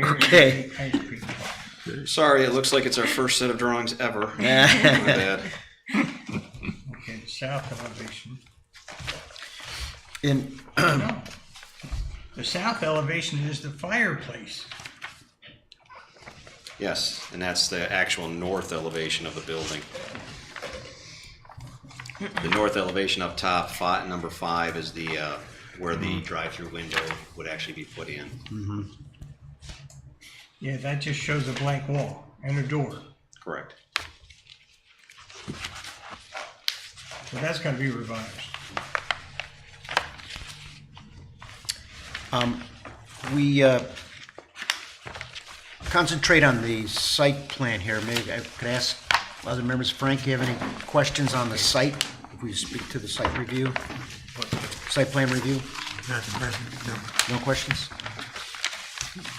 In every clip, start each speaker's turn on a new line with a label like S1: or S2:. S1: Okay.
S2: Sorry, it looks like it's our first set of drawings ever. My
S1: Uh,
S2: bad.
S3: Okay, south elevation.
S1: In,
S3: No. The south elevation is the fireplace.
S2: Yes, and that's the actual north elevation of the building. The north elevation up top, fi number five is the, uh, where the
S4: Mm-hmm.
S2: drive-through window would actually be put in.
S3: Yeah, that just shows a blank wall and a door.
S2: Correct.
S3: So that's gonna be revised.
S1: we uh, concentrate on the site plan here. Maybe I could ask other members, Frank, you have any questions on the site? If we speak to the site review, site plan review,
S5: Not the president, no.
S1: no questions?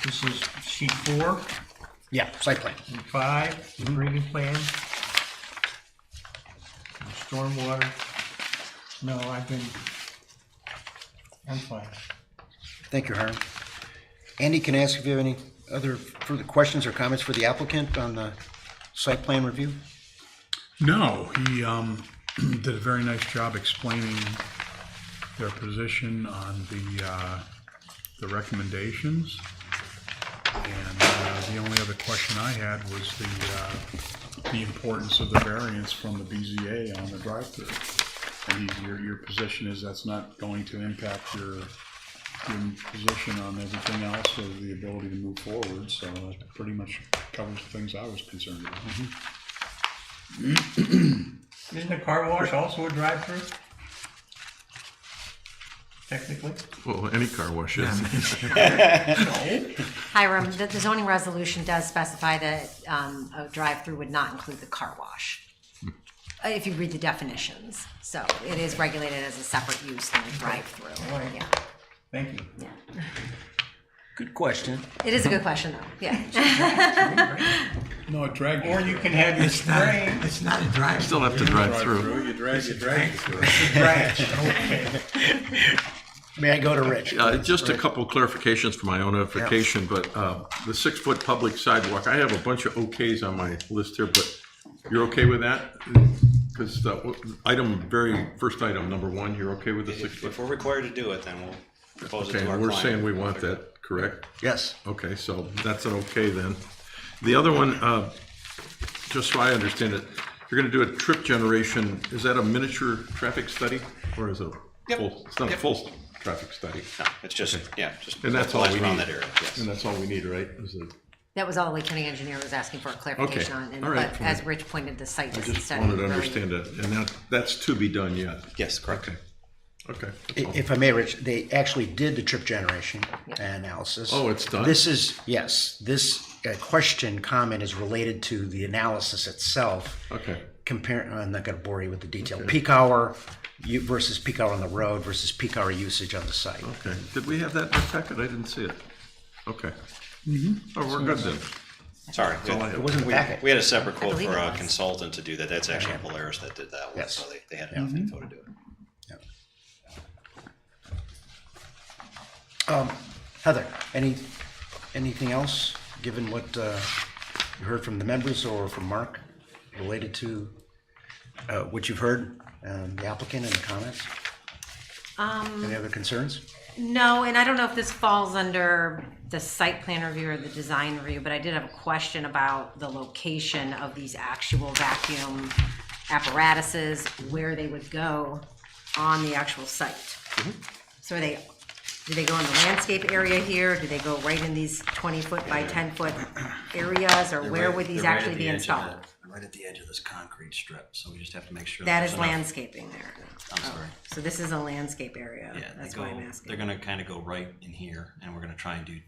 S3: This is sheet four
S1: Yeah, site plan.
S3: and five, the grading plan. And Stormwater. No, I've been, I'm fine.
S1: Thank you, Hiram. Andy, can I ask if you have any other further questions or comments for the applicant on the site plan review?
S5: No, he um, did a very nice job explaining their position on the, uh, the recommendations. And uh, the only other question I had was the, uh, the importance of the variance from the BZA on the drive-through. And he- your, your position is that's not going to impact your, your position on everything else or the ability to move forward, so that pretty much covers the things I was concerned about.
S3: Isn't a car wash also a drive-through? Technically?
S4: Well, any car wash is.
S6: Hiram, the the zoning resolution does specify that um, a drive-through would not include the car wash, uh, if you read the definitions. So it is regulated as a separate use than a drive-through. Yeah,
S3: Thank you.
S6: yeah.
S1: Good question.
S6: It is a good question, though, yeah.
S5: No, it dragged.
S3: Or you can have your spray.
S7: It's not a drive.
S4: Still have to drive through.
S8: You drag, you drag.
S3: Branch, okay.
S1: May I go to Rich?
S4: Uh, Just a couple clarifications for my own edification, but uh, the six-foot public sidewalk, I have a bunch of okays on my list here, but you're okay with that? Because item, very first item, number one, you're okay with the
S2: If
S4: six-foot?
S2: we're required to do it, then we'll propose it
S4: Okay,
S2: to our
S4: and we're
S2: client.
S4: saying we want that, correct?
S1: Yes.
S4: Okay, so that's an okay then. The other one, uh, just so I understand it, you're gonna do a trip generation, is that a miniature traffic study? Or is it a
S2: Yep.
S4: full, it's not a
S2: Yep.
S4: full traffic study?
S2: No, It's just, yeah, just.
S4: And that's all we need?
S2: Around that area, yes.
S4: And that's all we need, right? Is it-
S6: That was all the Lake County engineer was asking for a clarification on. and-
S4: all right,
S6: But
S4: fine.
S6: as Rich pointed, the site
S4: I
S6: doesn't
S4: just
S6: study.
S4: wanted to
S6: really-
S4: understand that, and that, that's to be done yet?
S2: Yes, correct.
S4: Okay, okay.
S1: I- If I may, Rich, they actually did the trip generation analysis.
S4: Oh, it's done?
S1: This is, yes, this uh, question, comment is related to the analysis itself.
S4: Okay,
S1: Compare, I'm not going to bore you with the detail. Peak hour u- versus peak hour on the road versus peak hour usage on the site.
S4: okay. Did we have that in the packet? I didn't see it. Okay. Oh, we're good then.
S2: Sorry. we-
S4: all I have. It
S1: wasn't
S2: we-
S1: packet.
S2: We had a separate quote
S6: believe
S2: for
S6: it
S2: a
S6: was.
S2: consultant to do that. That's actually Polaris that did that one,
S1: Yes.
S2: so they, they had enough
S4: Mm-hmm.
S2: info to do it.
S1: Um, Heather, any, anything else, given what uh, you heard from the members or from Mark related to uh, what you've heard, um, the applicant and the comments? Any other concerns?
S6: No, and I don't know if this falls under the site plan review or the design review, but I did have a question about the location of these actual vacuum apparatuses, where they would go on the actual site.
S8: Mm-hmm.
S6: So are they, do they go in the landscape area here? Do they go right in these twenty-foot by ten-foot areas, or where would these
S8: They're right at
S6: actually
S8: the
S6: be
S8: edge of
S6: installed?
S8: that- Right at the edge of this concrete strip, so we just have to make sure.
S6: That
S8: there's
S6: is
S8: enough-
S6: landscaping there. Oh,
S8: I'm sorry.
S6: So this is a landscape area.
S8: Yeah, they
S6: That's why I'm
S8: go,
S6: asking.
S8: they're gonna kinda go right in here, and we're gonna try and do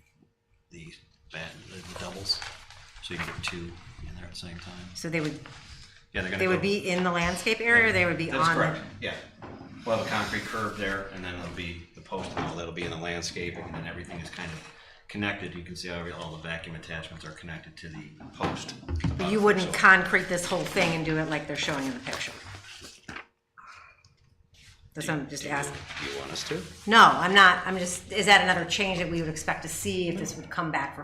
S8: the, bat- the the doubles, so you can get two in there at the same time.
S6: So they would
S2: Yeah, they're gonna
S6: They
S2: go.
S6: would be in the landscape area, or they would be
S2: That's
S6: on?
S2: correct, yeah. We'll have a concrete curb there, and then it'll be the post and all that'll be in the landscaping, and then everything is kind of connected. You can see how every- all the vacuum attachments are connected to the post.
S6: But you wouldn't concrete this whole thing and do it like they're showing in the picture? That's what I'm just asking.
S2: Do you want us to?
S6: No, I'm not, I'm just, is that another change that we would expect to see if this would come back for